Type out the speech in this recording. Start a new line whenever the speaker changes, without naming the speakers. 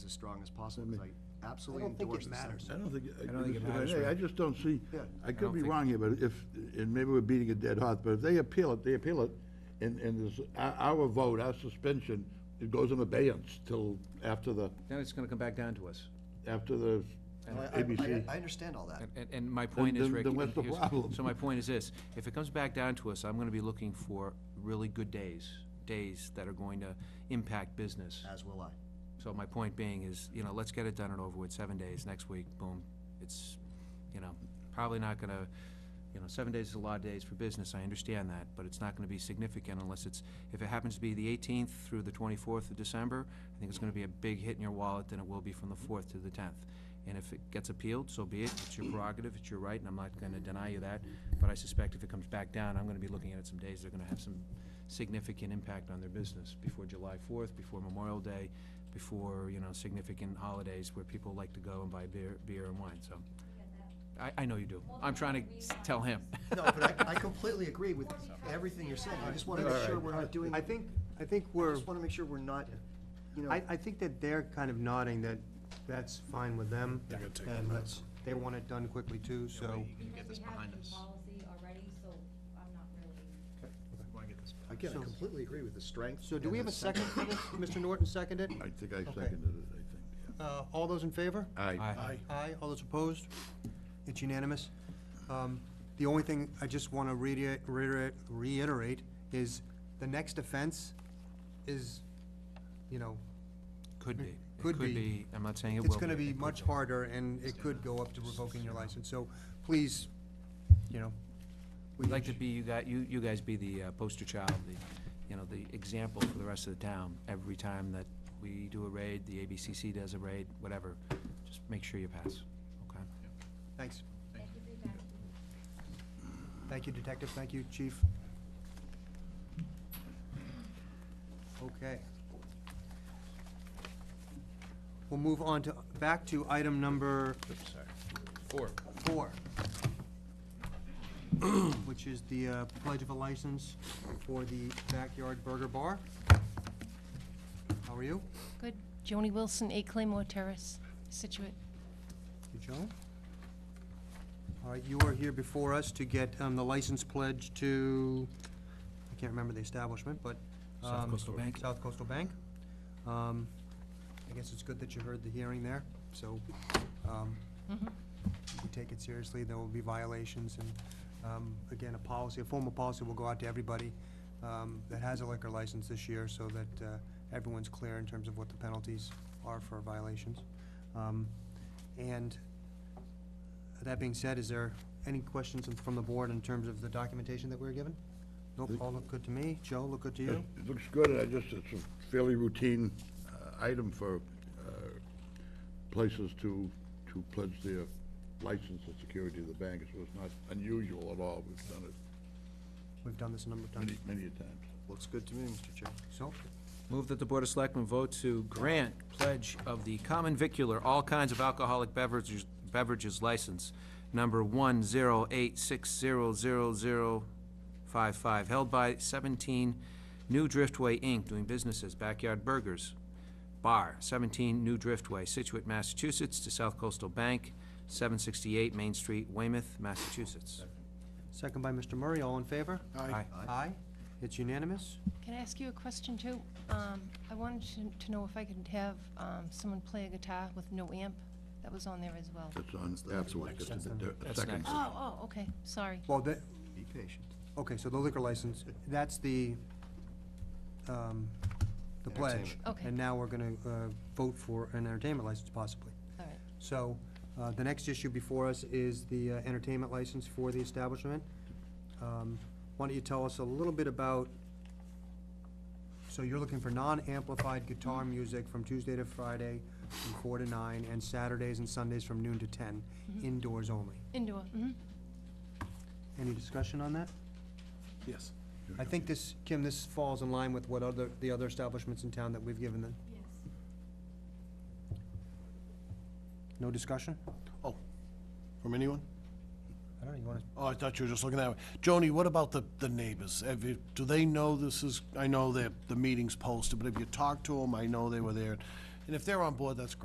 as strong as possible,
I mean-
because I absolutely
I don't think it
endorse the
matters.
sentiment.
I don't think.
I don't think it matters,
I
right?
just don't see,
Yeah.
I
don't
could be
think-
wrong here, but if, and maybe we're beating a dead horse, but if they appeal it, they appeal it, and, and this, our, our vote, our suspension, it goes in abeyance till after the,
Then it's gonna come back down to us.
after the
I- I-
ABC.
I I understand all that.
And- And, and my point is,
then-
Rick.
then what's
and
the
here's-
problem?
So my point is this, if it comes back down to us, I'm gonna be looking for really good days, days that are going to impact business.
As will I.
So my point being is, you know, let's get it done and over with, seven days, next week, boom. It's, you know, probably not gonna, you know, seven days is a lot of days for business, I understand that, but it's not gonna be significant unless it's, if it happens to be the eighteenth through the twenty-fourth of December, I think it's gonna be a big hit in your wallet than it will be from the fourth to the tenth. And if it gets appealed, so be it, it's your prerogative, it's your right, and I'm not gonna deny you that, but I suspect if it comes back down, I'm gonna be looking at it some days, they're gonna have some significant impact on their business before July fourth, before Memorial Day, before, you know, significant holidays where people like to go and buy beer, beer and wine, so. I, I know you do. I'm trying to s- tell him.
No, but I I completely agree with everything you're saying. I just want to make sure we're not doing,
I
I
think, I think we're,
just want to make sure we're not, you know,
I, I think that they're kind of nodding that that's fine with them. And that's, they want it done quickly too, so.
Because we have the policy already, so I'm not really.
again, I completely agree with the strength.
So do
and
we have
the
a second
sentiment.
for this? Mr. Norton seconded?
I think I seconded it,
Uh, all those in favor?
I think.
Aye.
Aye, all those opposed? It's unanimous. Um, The only thing I just want to reiterate, reiterate is the next offense is, you know,
Could be. It
Could be.
I'm not saying it will be.
it's going to be
It could
much harder and it could go up to revoking your license. So please, you know. we
We'd like to
each-
be, you guys, you, you guys be the uh, poster child, the, you know, the example for the rest of the town. Every time that we do a raid, the ABCC does a raid, whatever, just make sure you pass, okay?
Thanks.
Thank you for your time.
Thank you, Detective. Thank you, Chief. Okay. We'll move on to, back to item number
Four.
four, which is the uh, pledge of a license for the Backyard Burger Bar. How are you?
Good. Joni Wilson, 8 Claymore Terrace, Situate.
You, Joan? All right, you are here before us to get um, the license pledge to, I can't remember the establishment, but.
South
um,
Coastal Bank.
South Coastal Bank. Um, I guess it's good that you heard the hearing there, so um, we take it seriously, there will be violations, and um, again, a policy, a formal policy will go out to everybody um, that has a liquor license this year, so that uh, everyone's clear in terms of what the penalties are for violations. Um, And that being said, is there any questions from the board in terms of the documentation that we were given? Nope, all look good to me. Joe, look good to you?
It looks good, and I just, it's a fairly routine uh, item for uh, places to, to pledge their license and security to the bank, so it's not unusual at all. We've done it
We've done this a number of times.
many, many a times.
Looks good to me, Mr. Chair.
So,
Move that the Board of Selectmen vote to grant pledge of the common vicular, all kinds of alcoholic beverages, beverages license, number one zero eight six zero zero zero five five, held by seventeen New Driftway Inc., doing business as Backyard Burgers, Bar, 17 New Driftway, Situate, Massachusetts, to South Coastal Bank, 768 Main Street, Weymouth, Massachusetts.
second by Mr. Murray, all in favor?
Aye.
Aye. It's unanimous?
Can I ask you a question, too? Um, I wanted to- to know if I could have um, someone play a guitar with no amp? That was on there as well.
That's on, absolutely, just a bit- a
That's
second.
next.
Oh, oh, okay, sorry.
Well, that,
Be patient.
okay, so the liquor license, that's the, um, the pledge.
Entertainment.
Okay.
And now we're gonna, uh, vote for an entertainment license possibly.
All right.
So, uh, the next issue before us is the uh, entertainment license for the establishment. Um, Why don't you tell us a little bit about, so you're looking for non-amplified guitar music from Tuesday to Friday from four to nine, and Saturdays and Sundays from noon to ten, indoors only.
Indoor, mhm.
Any discussion on that?
Yes.
I think this, Kim, this falls in line with what other, the other establishments in town that we've given them.
Yes.
No discussion?
Oh, from anyone?
I don't know, you wanna,
Oh, I thought you were just looking that way. Joni, what about the, the neighbors? Have you, do they know this is, I know that the meeting's posted, but have you talked to them? I know they were there. And if they're on board, that's great.